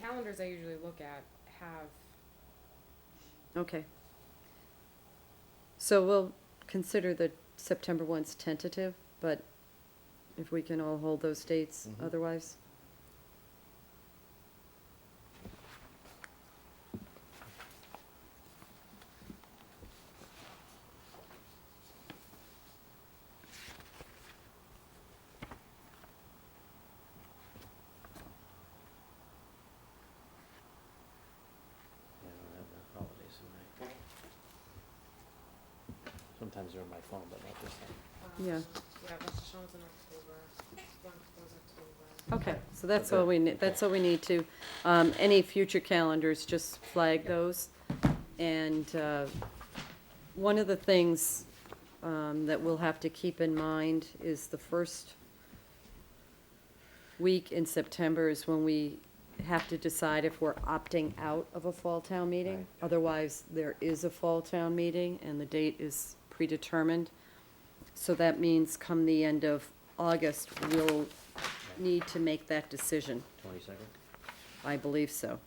calendars I usually look at have, Okay. So we'll consider the September ones tentative, but if we can all hold those dates Mhm. otherwise? Yeah, I don't have the holidays in my. Sometimes they're on my phone, but not this time. um, Yeah. Yeah, Rosh Hashanah's in October, Yom Kippur's October. Okay, so that's all Okay. we, need. that's all we need to, um, any future calendars, just flag those. And, uh, one of the things, um, that we'll have to keep in mind is the first week in September is when we have to decide if we're opting out of a fall town meeting. Right. Otherwise, there is a fall town meeting and the date is predetermined. So that means come the end of August, we'll need to make that decision. Twenty-second? I believe so.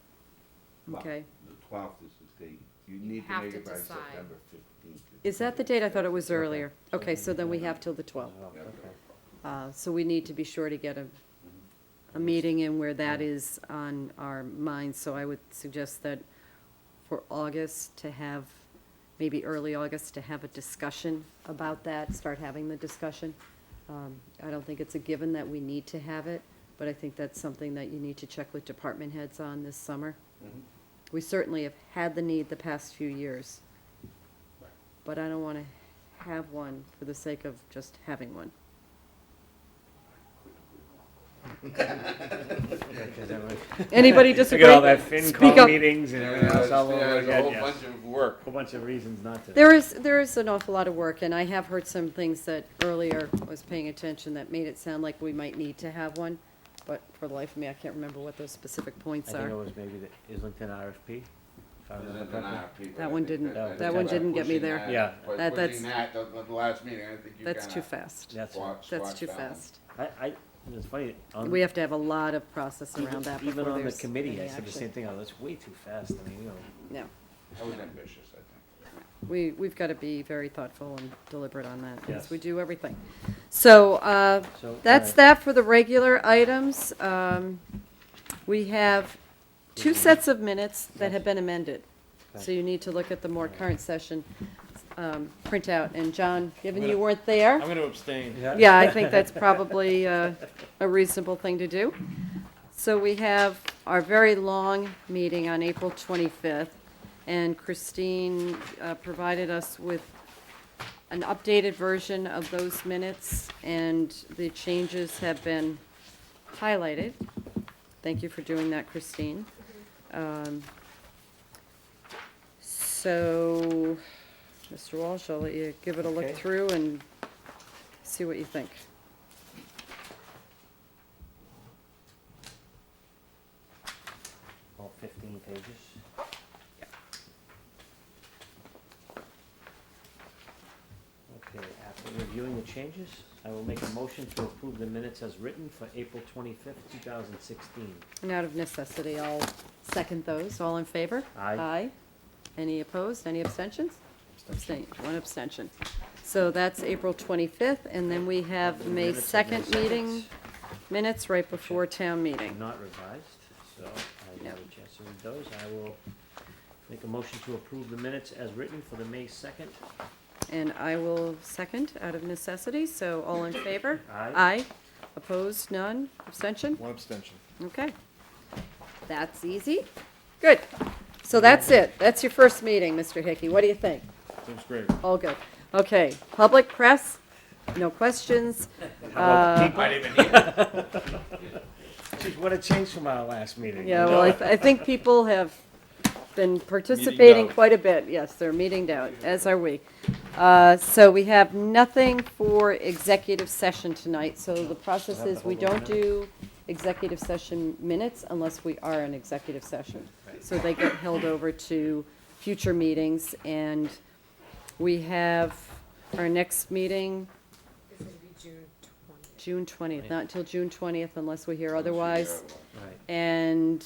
Wow. Okay. The twelfth is the date. You need to have make to it by decide. September fifteenth. Is that the date? I thought it was Okay. earlier. Okay, so then we have till the Well, 12th. Yeah. okay. Uh, So we need to be sure to get a, a meeting in where that is on our minds. So I would suggest that for August to have, maybe early August, to have a discussion about that, start having the discussion. Um, I don't think it's a given that we need to have it, but I think that's something that you need to check with department heads on this summer. Mm-hmm. Mhm. We certainly have had the need the past few years. But I don't want to have one for the sake of just having one. Is that right? Anybody Look disagree? at all that Speak FinCom up. meetings and everything else all over There's a again, whole yeah. bunch of Uh, work. Whole bunch of reasons not to. There is, there is an awful lot of work, and I have heard some things that earlier I was paying attention that made it sound like we might need to have one, but for the life of me, I can't remember what those specific I points think it are. was maybe the Islington RFP. if I There's remember an correctly. RFP, but That I one think didn't- that that's one by didn't get me pushing there. that- Yeah. by That- pushing that's- that to the last meeting, I think you That's kinda too fast. That's, right. squash- That's squash too that one. fast. I, I, it's funny. on- We have to have a lot of process Um, even- around that before Even on the there's committee, I any said the action. same thing, oh, that's way too fast, I mean, you know. No, That was ambitious, I think. we, we've got to be very thoughtful and deliberate on that, as Yes. we do everything. So, uh, So, That's alright. that for the regular items. Um, We have two sets of minutes that have been amended. So Okay. you need to look at the more current session um, printout. And John, given you weren't there, gonna abstain. yeah, I think that's probably uh, a reasonable thing to do. So we have our very long meeting on April 25th, and Christine uh, provided us with an updated version of those minutes, and the changes have been highlighted. Thank you for doing that, Christine. Um, So, Mr. Walsh, I'll let you give it a look Okay. through and see what you think. All fifteen pages. Okay, after reviewing the changes, I will make a motion to approve the minutes as written for April twenty-fifth, two thousand sixteen. And out of necessity, I'll second those. All in favor? Aye. Any opposed? Any abstentions? Abstain, one abstention. So that's April 25th, and then we have May 2nd meeting minutes right before town meeting. Not revised, so I didn't No. have a chance to read those. I will make a motion to approve the minutes as written for the May second. And I will second out of necessity, so all in favor? Aye. Aye. Opposed? None? Abstention? One abstention. Okay. That's easy. Good. So that's it. That's your first meeting, Mr. Hickey. What do you think? Seems great. All good. Okay, public press, no questions. Uh, Geez, what a change from our last meeting. Yeah, well, I, th- I think people have been participating out. quite a bit. Yes, they're meeting down, as are we. Uh, So we have nothing for executive session tonight. So the process Have to is we hold on a don't do executive session minutes unless we are in executive session. So they get held over to future meetings. And we have our next meeting It's gonna be June twentieth. June 20th, not until June 20th unless we hear otherwise. Right. And